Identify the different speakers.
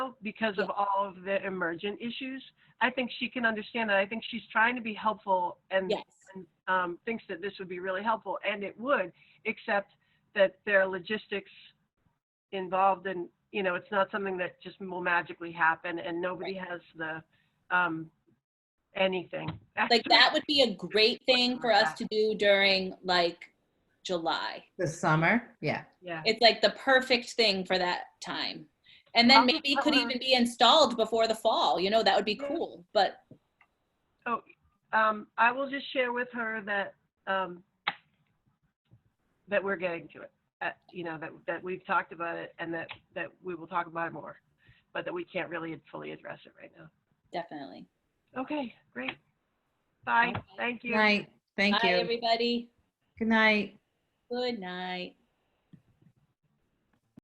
Speaker 1: because of all of the emergent issues. I think she can understand that. I think she's trying to be helpful
Speaker 2: Mm-hmm.
Speaker 1: and
Speaker 3: Yes,
Speaker 1: and, um, thinks that this would be really helpful, and it would, except that there are logistics involved, and you know, it's not something that just will magically happen, and nobody has the um, anything.
Speaker 3: like that would be a great thing for us to do during like July.
Speaker 2: The summer, yeah.
Speaker 1: yeah.
Speaker 3: It's like the perfect thing for that time. And then maybe it could even be installed before the fall, you know, that would be cool. But
Speaker 1: Um, I will just share with her that um, that we're getting to it. Uh, you know that that we've talked about it, and that that we will talk about it more, but that we can't really fully address it right now.
Speaker 3: definitely.
Speaker 1: Okay, great. Bye.
Speaker 3: Okay.
Speaker 1: Thank you.
Speaker 2: Night, thank
Speaker 3: Bye,
Speaker 2: you.
Speaker 3: everybody.
Speaker 2: Good night.
Speaker 3: Good night.